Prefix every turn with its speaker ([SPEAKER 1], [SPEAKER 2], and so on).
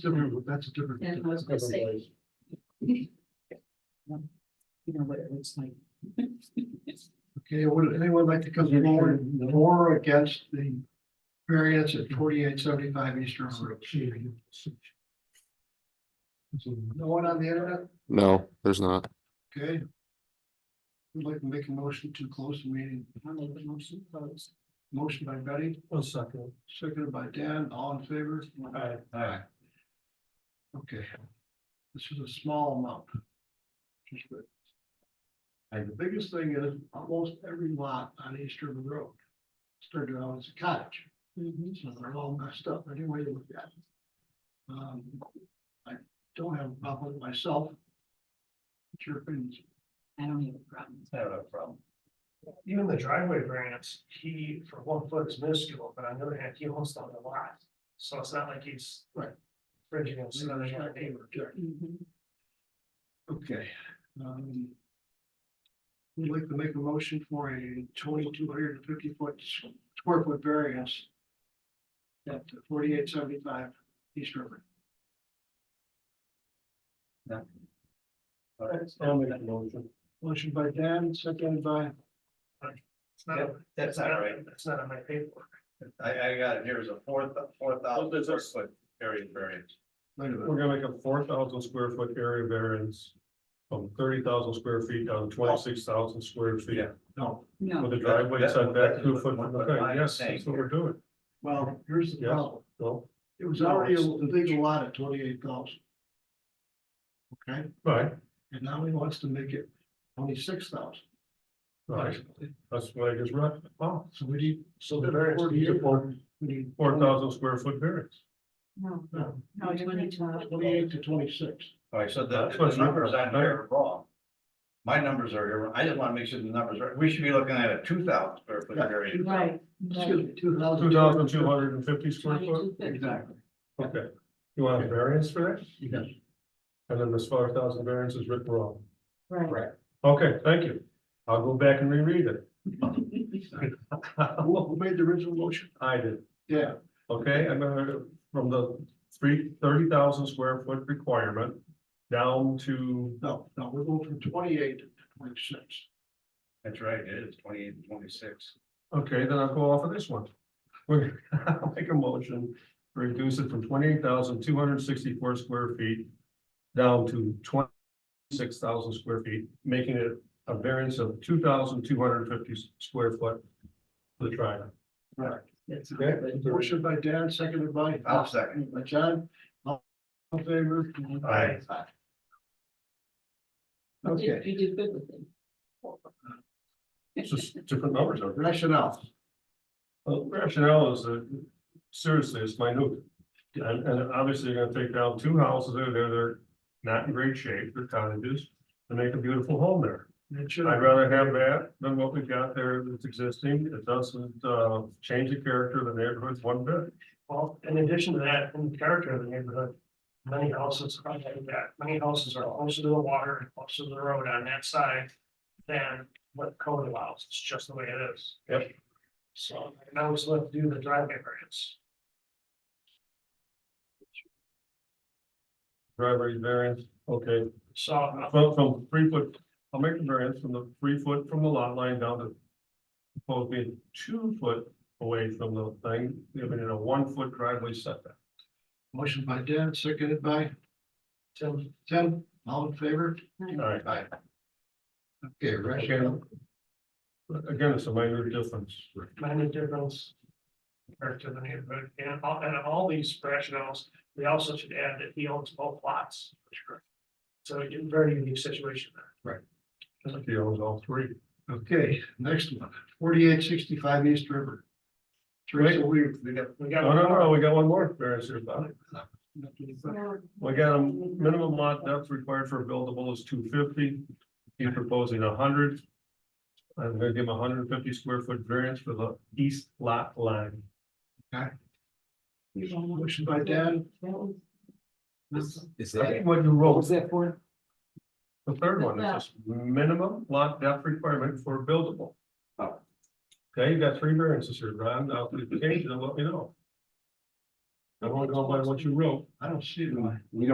[SPEAKER 1] Different, that's a different.
[SPEAKER 2] Yeah, I was gonna say. You know what it looks like.
[SPEAKER 1] Okay, would anyone like to come forward for or against the variance at forty-eight seventy-five Eastern Road? No one on the internet?
[SPEAKER 3] No, there's not.
[SPEAKER 1] Okay. Would like to make a motion to close the meeting.
[SPEAKER 2] I'll make the motion closed.
[SPEAKER 1] Motion by Betty,
[SPEAKER 4] One second.
[SPEAKER 1] seconded by Dan, all in favor?
[SPEAKER 4] Aye.
[SPEAKER 1] Aye. Okay. This is a small amount. Just good. And the biggest thing is almost every lot on Eastern Road started out as a cottage.
[SPEAKER 2] Mhm.
[SPEAKER 1] So they're all messed up anyway to look at. it. Um, I don't have a problem with myself. It's your opinion.
[SPEAKER 2] I don't have a problem.
[SPEAKER 4] I don't have a problem. Even the driveway variance, he, for one foot is minuscule, but on the other hand, he owns the whole lot, so it's not like he's.
[SPEAKER 1] Right.
[SPEAKER 4] Bridging himself on a neighbor.
[SPEAKER 2] Mhm.
[SPEAKER 1] Okay, um. I'd like to make a motion for a twenty-two hundred and fifty foot square foot variance. At forty-eight seventy-five East River.
[SPEAKER 4] I'll make that motion.
[SPEAKER 1] Motion by Dan, seconded by,
[SPEAKER 4] It's not,
[SPEAKER 5] That- That's not right.
[SPEAKER 4] it's not on my paperwork.
[SPEAKER 5] I, I got it. Here is a four, four thousand
[SPEAKER 6] there's a-
[SPEAKER 5] square foot area variance.
[SPEAKER 1] wait a minute,
[SPEAKER 6] We're gonna make a four thousand square foot area variance from thirty thousand square feet down to twenty-six thousand square feet.
[SPEAKER 5] Yeah.
[SPEAKER 1] no,
[SPEAKER 2] No.
[SPEAKER 6] With a driveway
[SPEAKER 5] That's-
[SPEAKER 6] setback
[SPEAKER 5] that's
[SPEAKER 6] two
[SPEAKER 5] what-
[SPEAKER 6] foot,
[SPEAKER 5] what
[SPEAKER 6] okay,
[SPEAKER 5] I'm
[SPEAKER 6] yes,
[SPEAKER 5] saying
[SPEAKER 6] that's what we're doing.
[SPEAKER 1] well, here's the
[SPEAKER 6] Yes.
[SPEAKER 1] problem.
[SPEAKER 6] Well,
[SPEAKER 1] It was already a legal lot at twenty-eight thousand. Okay,
[SPEAKER 6] right,
[SPEAKER 1] and now he wants to make it twenty-six thousand.
[SPEAKER 6] right, that's what I just read,
[SPEAKER 1] Wow, so we need,
[SPEAKER 4] So
[SPEAKER 1] the variance needs a we need.
[SPEAKER 6] four thousand square foot variance.
[SPEAKER 2] No,
[SPEAKER 1] No,
[SPEAKER 2] no, twenty-two.
[SPEAKER 1] Twenty-eight to twenty-six.
[SPEAKER 5] All right, so the,
[SPEAKER 6] That's what's
[SPEAKER 5] the numbers
[SPEAKER 6] wrong.
[SPEAKER 5] on here are wrong. My numbers are, here. I just want to make sure the numbers are, we should be looking at a two thousand square foot
[SPEAKER 1] Yeah.
[SPEAKER 5] variance.
[SPEAKER 2] Right.
[SPEAKER 1] Excuse me, two thousand.
[SPEAKER 6] Two thousand two hundred and fifty square foot,
[SPEAKER 2] Twenty-two fifty.
[SPEAKER 1] Exactly,
[SPEAKER 6] okay. You want a variance for that?
[SPEAKER 1] yes.
[SPEAKER 6] And then this four thousand variance is written wrong.
[SPEAKER 2] Right.
[SPEAKER 6] Okay, thank you. I'll go back and reread it.
[SPEAKER 1] Who, who made the original motion?
[SPEAKER 6] I did.
[SPEAKER 1] Yeah.
[SPEAKER 6] Okay, I'm gonna, from the three, thirty thousand square foot requirement down to,
[SPEAKER 1] No, no, we're going from twenty-eight to twenty-six.
[SPEAKER 5] That's right, it is twenty-eight and twenty-six.
[SPEAKER 6] okay, then I'll go off of this one. We're gonna make a motion, to reduce it from twenty-eight thousand two hundred sixty-four square feet down to twenty-six thousand square feet, making it a variance of two thousand two hundred fifty square foot for the triangle.
[SPEAKER 2] That's
[SPEAKER 6] Okay.
[SPEAKER 1] Motion by Dan, seconded by.
[SPEAKER 5] I'll second.
[SPEAKER 1] By John. All in favor?
[SPEAKER 5] Aye.
[SPEAKER 2] You did-
[SPEAKER 1] Okay,
[SPEAKER 2] You did good with it.
[SPEAKER 6] It's just different numbers, are
[SPEAKER 1] rationale.
[SPEAKER 6] Well, rationale is that, seriously, it's minute. And, and obviously you're gonna take down two houses that are there, they're not in great shape, they're cottages, and make a beautiful home there.
[SPEAKER 1] I'd
[SPEAKER 6] I'd rather have that than what we've got there that's existing. It doesn't, uh, change the character of the neighborhood one bit.
[SPEAKER 4] Well, in addition to that, in the character of the neighborhood, many houses are like that, many houses are closer to the water, and closer to the road on that side. Than what code allows, it's just the way it is.
[SPEAKER 6] Yep.
[SPEAKER 4] So, and I was left to do the driveway variance,
[SPEAKER 6] Driveway variance, okay,
[SPEAKER 4] so uh,
[SPEAKER 6] from, from three foot, I'll make the variance from the three foot from the lot line down to. Supposed being two foot away from the thing, giving it a one foot driveway setback.
[SPEAKER 1] Motion by Dan, seconded by
[SPEAKER 4] Tim,
[SPEAKER 1] Tim, all in favor?
[SPEAKER 6] All right.
[SPEAKER 1] Aye. Okay, rationale.
[SPEAKER 6] But Again, it's a minor difference.
[SPEAKER 4] many difference. Character of the neighborhood, and all, and all these rationales, we also should add that he owns both lots. So it's a very unique situation there.
[SPEAKER 6] He owns all three.
[SPEAKER 1] Okay, next one, forty-eight sixty-five East River. Teresa, we, we got.
[SPEAKER 4] We
[SPEAKER 6] Oh, No,
[SPEAKER 4] got.
[SPEAKER 6] no, no, we got one more variance here, Bob.
[SPEAKER 2] So,
[SPEAKER 6] We got a minimum lot depth required for buildable is two fifty. He's proposing hundred. I'm gonna give him hundred and fifty square foot variance for the east lot line.
[SPEAKER 2] you don't want-
[SPEAKER 1] Motion by Dan,
[SPEAKER 2] That was-
[SPEAKER 5] Is
[SPEAKER 6] I think what you wrote,
[SPEAKER 5] that for?
[SPEAKER 6] the third one, is just minimum lot depth requirement for buildable.
[SPEAKER 5] Oh.
[SPEAKER 6] Okay, you got three variances here, Ron. Now, if you change it, let me know.
[SPEAKER 7] Everyone go by what you wrote.
[SPEAKER 6] I don't see why.
[SPEAKER 1] We don't